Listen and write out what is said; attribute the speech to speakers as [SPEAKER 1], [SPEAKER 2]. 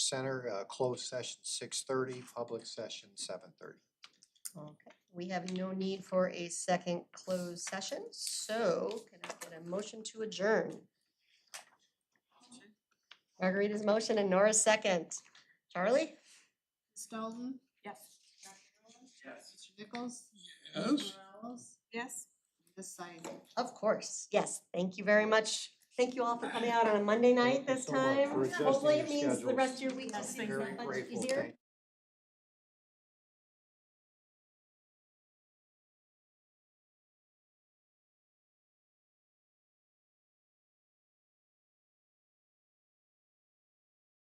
[SPEAKER 1] Center, uh, closed session six thirty, public session seven thirty.
[SPEAKER 2] Okay, we have no need for a second closed session, so can I get a motion to adjourn? Margarita's motion and Nora's second. Charlie?
[SPEAKER 3] Ms. Dalton?
[SPEAKER 4] Yes.
[SPEAKER 3] Dr. Nolan? Mr. Nichols?
[SPEAKER 5] Yes.
[SPEAKER 3] Mr. Morales?
[SPEAKER 4] Yes.
[SPEAKER 3] Ms. Seiden?
[SPEAKER 2] Of course, yes, thank you very much. Thank you all for coming out on a Monday night
[SPEAKER 1] Thank you
[SPEAKER 2] this
[SPEAKER 1] so much
[SPEAKER 2] time.
[SPEAKER 1] for adjusting
[SPEAKER 2] Hopefully
[SPEAKER 1] your
[SPEAKER 2] it means the
[SPEAKER 1] schedules.
[SPEAKER 2] rest of your week
[SPEAKER 4] Yes,
[SPEAKER 2] is
[SPEAKER 4] thank you.
[SPEAKER 1] Very
[SPEAKER 2] much
[SPEAKER 1] grateful,
[SPEAKER 2] easier.
[SPEAKER 1] thank